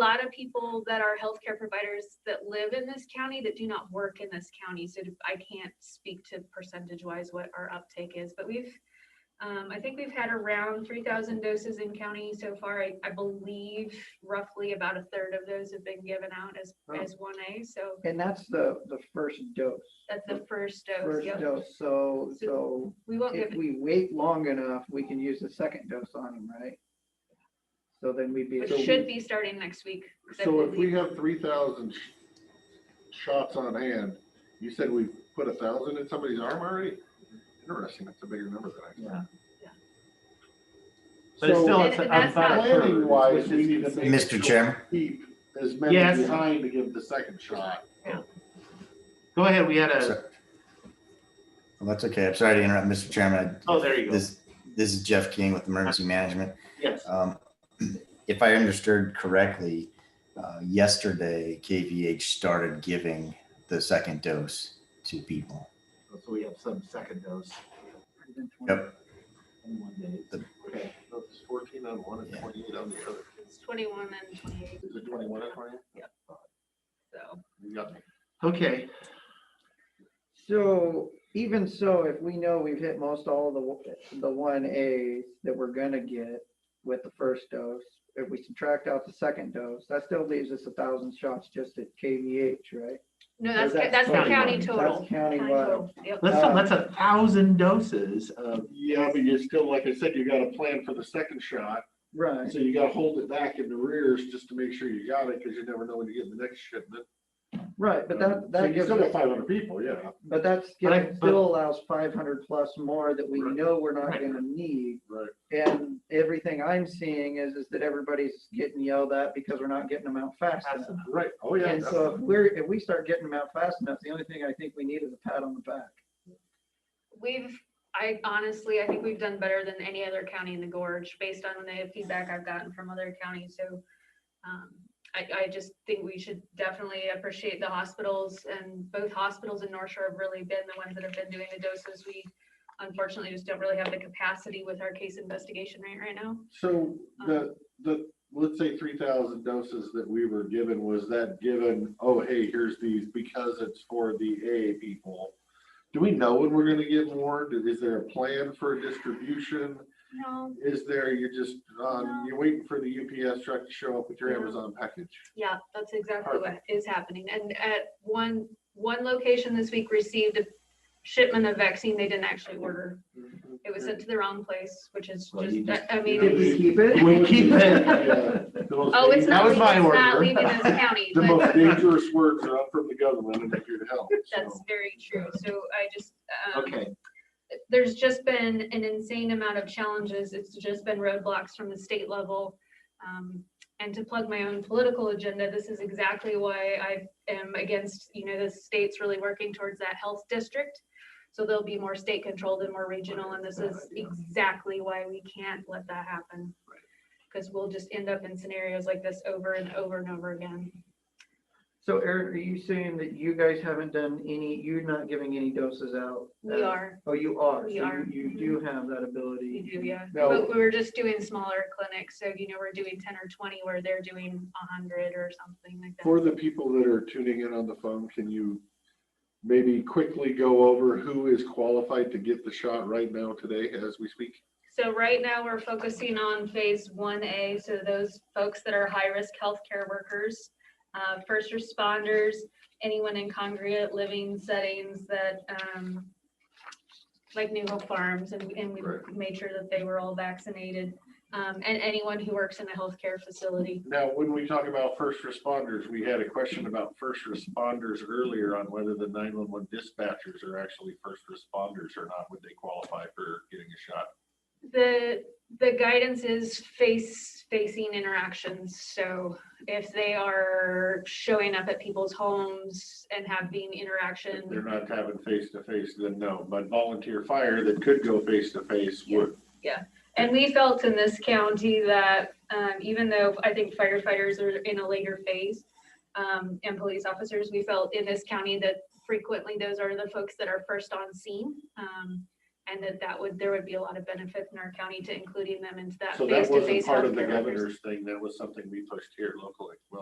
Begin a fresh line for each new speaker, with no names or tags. lot of people that are healthcare providers that live in this county that do not work in this county. So I can't speak to percentage wise what our uptake is, but we've, um, I think we've had around three thousand doses in county so far. I, I believe roughly about a third of those have been given out as,
Oh.
as one A. So
And that's the, the first dose,
that's the first dose.
first
Yep.
dose. So, so
We won't give
if we wait long enough, we can use the second dose on them, right? So then we'd be.
Which
so we-
should be starting next week. 'cause I
So if we
believe-
have three thousand shots on hand, you said we put a thousand in somebody's arm already? Interesting, that's a bigger number than I
Yeah.
thought.
But it's still,
So-
it's
And- and
about a
that's
Planning
third.
wise,
which
we
is
need to make. sure
Mr.
we
Chairman,
Keep as many
Yes.
behind to give the second shot.
Go ahead, we had a,
so- Well, that's okay. I'm sorry to interrupt, Mr. Chairman. I-
oh, there you go.
This, this is Jeff King with Emergency Management.
Yes,
Um, If I understood correctly, uh, yesterday KVH started giving the second dose to people.
so we have some second dose.
Yep.
In one day.
Okay, no, it's fourteen on one and
Yeah.
twenty-eight on the other.
It's twenty-one and twenty-eight,
Is it twenty-one and twenty?
so.
You got me.
Okay,
So even so, if we know we've hit most all the, w- the one A's that we're gonna get with the first dose, if we subtract out the second dose, that still leaves us a thousand shots just at KVH, right?
No,
Or
that's, ca- that's
that's
the county
countywide.
total.
That's
County
countywide.
total. Yep.
that's, a- that's a thousand doses of,
Yeah, but you're still, like I said, you gotta plan for the second shot,
Right.
so you gotta hold it back in the rears just to make sure you got it, because you never know when you get the next shipment.
Right, but that, that gives, us-
five hundred people, yeah.
but that's,
But I-
given-
but-
still allows five hundred plus more that we
Right.
know we're not
Right.
gonna need.
Right.
And everything I'm seeing is, is that everybody's getting yelled at because we're not getting them out fast enough.
Right, oh yeah.
And so if
definitely.
we're, if we start getting them out fast enough, the only thing I think we need is a pat on the back.
We've, I honestly, I think we've done better than any other county in the gorge based on the feedback I've gotten from other counties. So um, I, I just think we should definitely appreciate the hospitals and both hospitals in North Shore have really been the ones that have been doing the doses. We unfortunately just don't really have the capacity with our case investigation rate right now.
So the, the, let's say three thousand doses that we were given, was that given, oh, hey, here's these because it's for the A people? Do we know when we're gonna get more? Do- Is there a plan for distribution?
No,
Is there, you're just, um, you're waiting for the UPS truck to show up with your
No.
Amazon package?
Yeah, that's exactly what is happening. And at one, one location this week received a shipment of vaccine they didn't actually order. It was sent to the wrong place, which is
Mm-hmm. Well, you
just,
just-
I mean,
Did
it's-
we
keep it?
We keep
Yeah.
it.
oh, it's not,
was
it's
my
not
order.
leaving this county,
The most
but
dangerous words are up from the government and they're here to help. so.
that's very true. So I just, um,
Okay,
there's just been an insane amount of challenges. It's just been roadblocks from the state level. Um, And to plug my own political agenda, this is exactly why I am against, you know, the state's really working towards that health district. So there'll be more state controlled and more regional, and this is exactly why we can't let that happen. Because we'll just end up in scenarios like this over and over and over again.
So Eric, are you saying that you guys haven't done any, you're not giving any doses out?
We
Uh,
are,
Oh, you are?
We
So you-
are.
You do have that
we
ability.
do, yeah.
Now-
But we were just doing smaller clinics, so you know, we're doing ten or twenty where they're doing hundred or something like that.
For the people that are tuning in on the phone, can you maybe quickly go over who is qualified to get the shot right now today as we speak?
So right now, we're focusing on phase one A, so those folks that are high-risk healthcare workers, uh, first responders, anyone in congregate living settings that, um, like New Hope Farms, and, and we
Right.
made sure that they were all vaccinated, um, and anyone who works in a healthcare facility.
Now, when we talk about first responders, we had a question about first responders earlier on whether the nine-one-one dispatchers are actually first responders or not. Would they qualify for getting a shot?
The, the guidance is face, facing interactions, so if they are showing up at people's homes and having interaction.
If they're not having face-to-face, then no, but volunteer fire that could go face-to-face would.
And we felt in this county that um, even though I think firefighters are in a later phase um, and police officers, we felt in this county that frequently those are the folks that are first on scene. um, and that that would, there would be a lot of benefit in our county to including them into that
So that wasn't
face-to-face
part of
healthcare.
the
workers.
governor's thing, that was something we pushed here locally, well,